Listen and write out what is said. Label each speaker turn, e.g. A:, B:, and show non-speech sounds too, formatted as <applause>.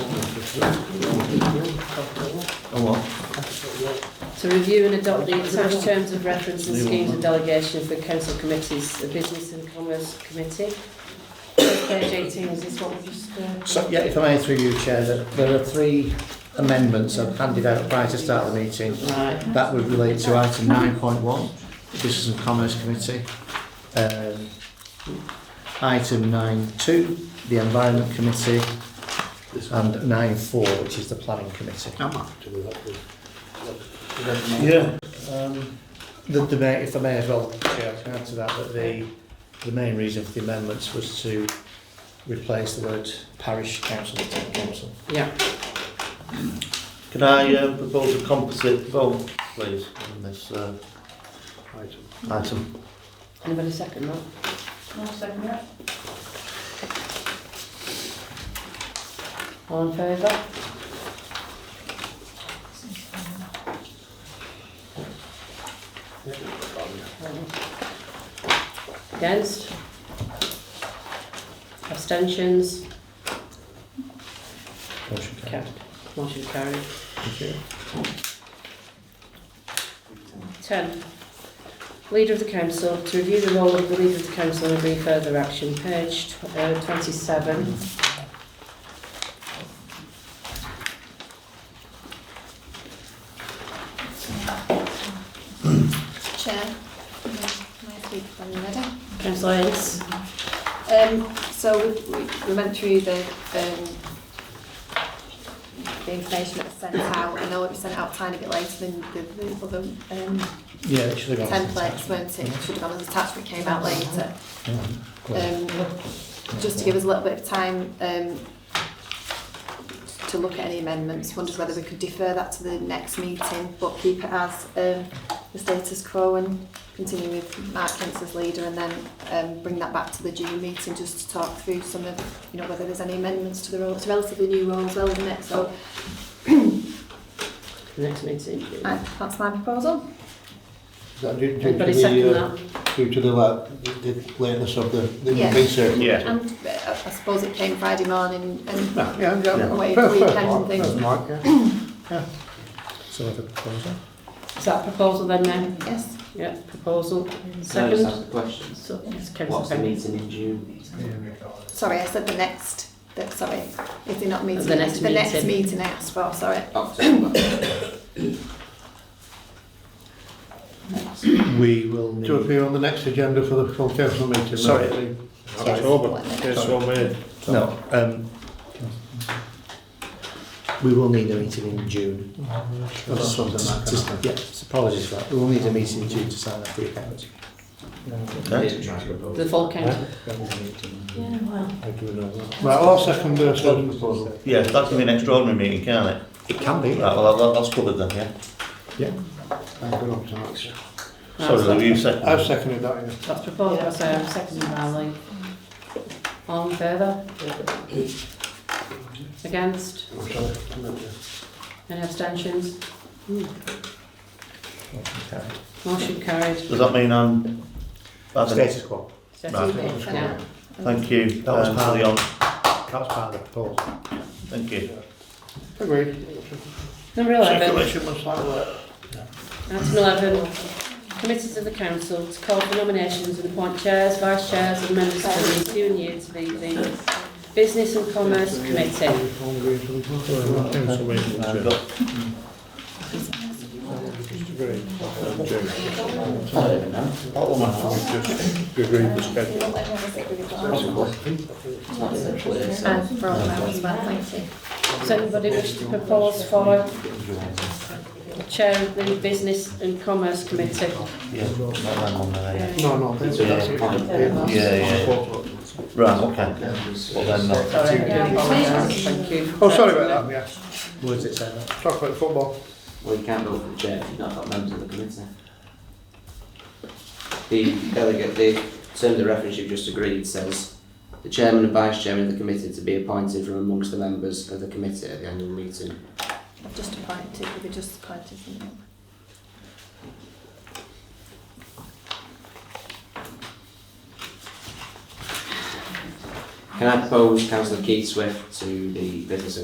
A: Oh, well.
B: To review and adopt the attached terms of reference and schemes of delegation for council committees, the Business and Commerce Committee. Page 18, is this what we just... uh,
C: So, yeah, if I may through you, Chair, that there are three amendments I've handed out prior to start of the meeting.
B: Right,
C: That would relate to item nine point one, Business and Commerce Committee. Um, item nine two, the Environment Committee, and nine four, which is the Planning Committee. Yeah, um, the, the main, if I may as well, Chair, I can add to that, that the, the main reason for the amendments was to replace the word parish council with town council.
B: yeah.
A: Can I uh, propose a composite vote, please, on this uh, item?
B: Anybody second that?
D: I'll second that.
B: All in favour? Against? Abstentions?
C: Motion carried.
B: Carried. Motion carried.
C: Thank you.
B: 10. Leader of the council, to review the role of the leader of the council and agree further action. Page tw- uh, 27.
E: Chair, may may I speak for a minute?
B: Councillor Ince?
E: Um, so we, we- we went through the, um, the information that was sent out. I know it was sent out a tiny bit later than the, the other um,
C: Yeah, it should have gone.
E: templates, weren't it? Should have gone as attached, but it came out later.
C: Yeah, cool.
E: Um, just to give us a little bit of time um, to look at any amendments. Wondered whether we could defer that to the next meeting, but keep it as um, the status quo and continue with Mark Kent's as leader, and then um, bring that back to the June meeting just to talk through some of, you know, whether there's any amendments to the role. It's a relatively new role as well, isn't it? So
B: The next meeting.
E: uh, that's my proposal.
B: Anybody second that?
A: Due uh, to the la- the- the lateness of the the
E: Yeah.
A: meeting circle.
C: Yeah. Ah,
E: And uh, I suppose it came Friday morning and
A: Yeah, yeah.
E: away for the weekend and
A: That's
C: <laughs>
E: things.
A: Mark, yeah.
E: <coughs>
C: So I have a proposal.
B: Is that a proposal then, then?
E: Yes.
B: Yeah, proposal.
F: Can I just
B: Second?
F: ask a question?
B: So, it's
F: What's
B: councillor
F: the
B: Penny.
F: meeting in June?
E: Sorry, I said the next. The, sorry, is it not meeting?
B: The next
E: the next
B: meeting.
E: meeting I asked for. Sorry.
F: October.
C: We will
A: To
C: need.
A: appear on the next agenda for the full council meeting.
C: Sorry.
A: no?
E: October.
C: No, um, we will need a meeting in June.
A: Well, that's something that can
C: Just-
A: happen.
C: Yeah, so apologies for that. We will need a meeting in June to sign up the accounts.
B: The full council. Yeah, well.
A: Right, I'll second the second proposal.
G: Yeah, that can be an extraordinary meeting, can't it?
C: It can be.
G: Right, well, that, that's covered then, yeah?
A: I've been up to that.
G: Sorry, Lou, you second.
A: I've seconded that, yeah.
B: That's um, proposal, so I'm seconding that, like. All in favour? Against?
A: I'm sorry.
B: Any abstentions?
C: Okay.
B: Motion carried.
G: Does that mean um, I'm... that's it?
C: Status quo.
B: Second,
E: Right.
B: yeah.
G: Thank you,
C: That was
G: um, for
C: part
G: the on.
C: That was part of the proposal.
G: Thank you.
A: Agreed.
B: Number 11.
A: Circulation must have that.
B: Item 11. Committees of the council to call for nominations and appoint chairs, vice chairs and members for the ensuing year to be the Business and Commerce Committee.
G: I've got
E: And Uh, for all that as well. Thank you.
B: Does anybody wish to propose for chair of the Business and Commerce Committee?
G: Yeah, not that one there,
A: No, no, that's it. that's it.
G: yeah. Yeah, yeah. Right, okay. Well then, uh,
B: Sorry. Thank you.
A: Oh, sorry about that, yeah.
C: Words it say that.
A: Talk about football.
F: Well, you can't vote for the chair if you've not got members of the committee. The delegate, the terms of reference you've just agreed says, the chairman and vice chairman of the committee to be appointed from amongst the members of the committee at the annual meeting.
E: I've just appointed. We were just appointed. From
F: Can I propose councillor Keith Swift to the business and